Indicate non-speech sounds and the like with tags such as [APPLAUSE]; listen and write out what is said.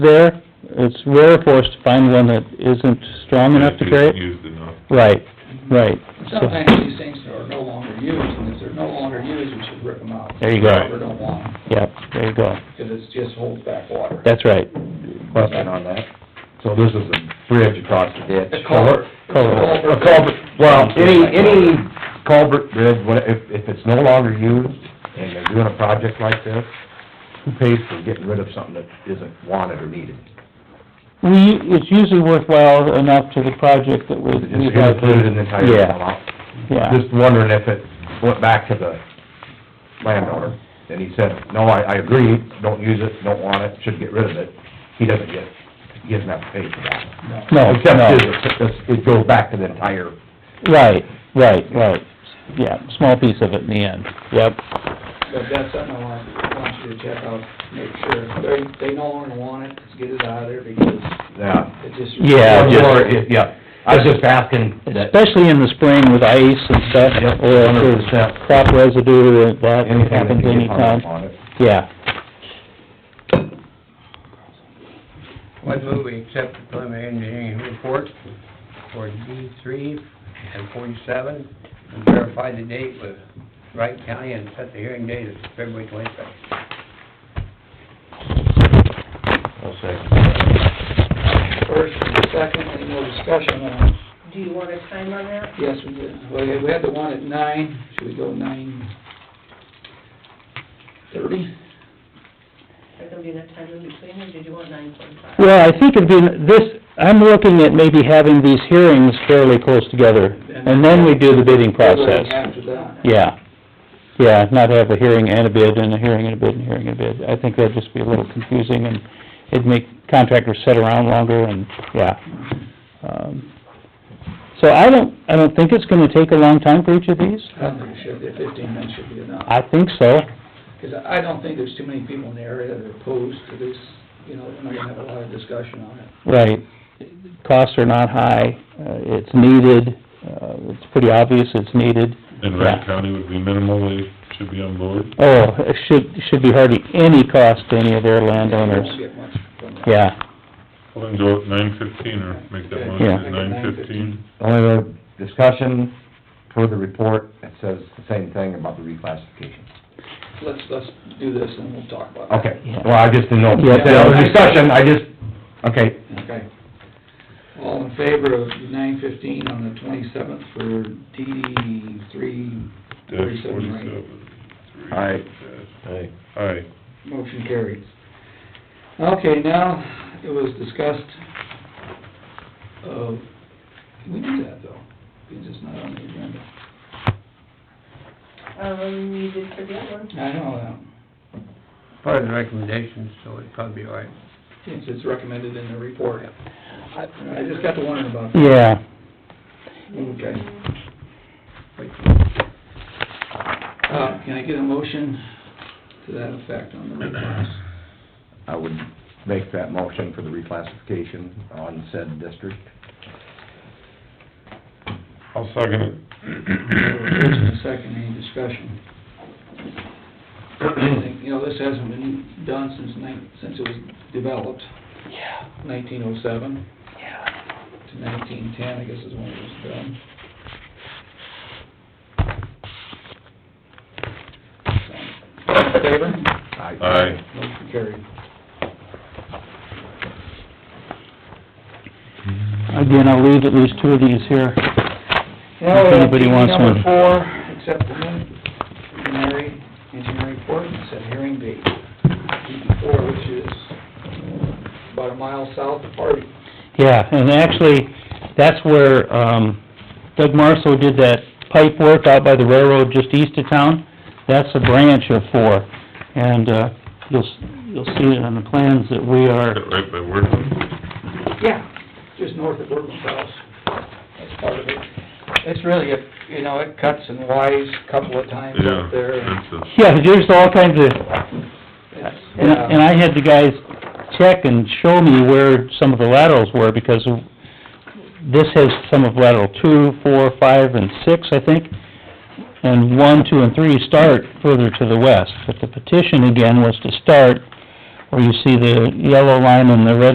there, it's rare for us to find one that isn't strong enough to It's carry. it. Used enough. Right, right. So- Sometimes these things are no longer used, and if they're no longer used, we should rip them out. There you go. Or don't want them, Yep, there you go. because it's just holds back water. That's right. question on that. So this is a bridge across the ditch. A culvert. Culvert. A culvert, well, any, any culvert bridge, what- if, if it's no longer used and they're doing a project like this, who pays for getting rid of something that isn't wanted or needed? We, it's usually worthwhile enough to the project that we, Is it we just have. included in the entire Yeah. amount? Yeah, Just wondering if it went back to the landowner and he said, no, I, I agree, don't use it, don't want it, should get rid of it. He doesn't get, he doesn't have to pay for that. Oh, no, no, Except it, it goes back to the entire right, right, right. Yeah, small piece of it in the end, yep. But that's something I want, want you to check out, make sure, if they, they no longer want it, just get it out of there, because Yeah. it just. Yeah, just- Or, if- yeah, I was just asking that, Especially in the spring with ice and stuff, Yep, or if there's 100%. crop residue, or that anything that happens you get hung anytime. up on it. Yeah, One move we accept the preliminary engineering report for D three and forty-seven, and verify the date with Wright County and set the hearing date as February twenty-second. First and second, any more discussion on, Do you want a time on that? yes, we did, well, yeah, we had the one at nine, should we go nine thirty? Is there gonna be enough time in between, or did you want nine forty-five? Well, I think it'd be, this, I'm looking at maybe having these hearings fairly close together, and then we do the bidding process. After that, Yeah, yeah, not have a hearing and a bid, and a hearing and a bid, and a hearing and a bid. I think that'd just be a little confusing, and it'd make contractors sit around longer, and, yeah. Um So I don't, I don't think it's gonna take a long time for each of these. I don't think it should, be. fifteen minutes should be enough. I think so. Because I don't think there's too many people in the area that are opposed to this, you know, we're not gonna have a lot of discussion on it. Right. Costs are not high, uh, it's needed, uh, it's pretty obvious it's needed. And Yeah. Wright County would be minimal, they should be on board. Oh, it should, should be hardly any cost to any of their We won't landowners. get much from that. uh, Yeah, Well, then go at nine fifteen or make that motion Yeah. at nine fifteen. Only other discussion for the report, it says the same thing about the reclassification. Let's, let's do this and we'll talk about it. Okay, well, I just didn't know, Yeah. there was discussion, I just, okay, Okay. All in favor of nine fifteen on the twenty-seventh for DD three, Dash Forty-seven, right. forty-seven. three, Aye. dash- Aye. motion carries. Okay, now, it was discussed, of we do that though, it's just not on the agenda. Um, you did for the other one. I know that. Part of the recommendations, so it'd probably be all right. Since it's recommended in the report. I I just got to wondering about that. yeah. Okay. Wait till- Uh, can I get a motion to that effect on the request? I would make that motion for the reclassification on said district. I'll second it. First and [COUGHS] second, any discussion? I think, You know, this hasn't been done since nine, since it was developed, Yeah, nineteen oh seven yeah. to nineteen ten, I guess is when it was done. So, Favor? Aye. Motion carried. Again, I'll leave at least two of these here. Now, If anybody uh, wants number one. four, accept the preliminary engineering report, and set hearing date, DD4, which is about a mile south of Hardy. Yeah, and actually, that's where, um, Doug Marso did that pipe work out by the railroad just east of town. That's a branch of four, and, uh, you'll, s- you'll see it on the plans that we Got are, it right by Worthing. Yeah. Just north of Woodman's house, that's part of it. It's really, a you know, it cuts and wides a couple of times Yeah, up there. and that's a, yeah, there's all kinds of, it's- and, and I had the guys check and show me where some of the laterals were, because this has some of lateral two, four, five, and six, I think, and one, two, and three start further to the west, but the petition again was to start where you see the yellow line and the red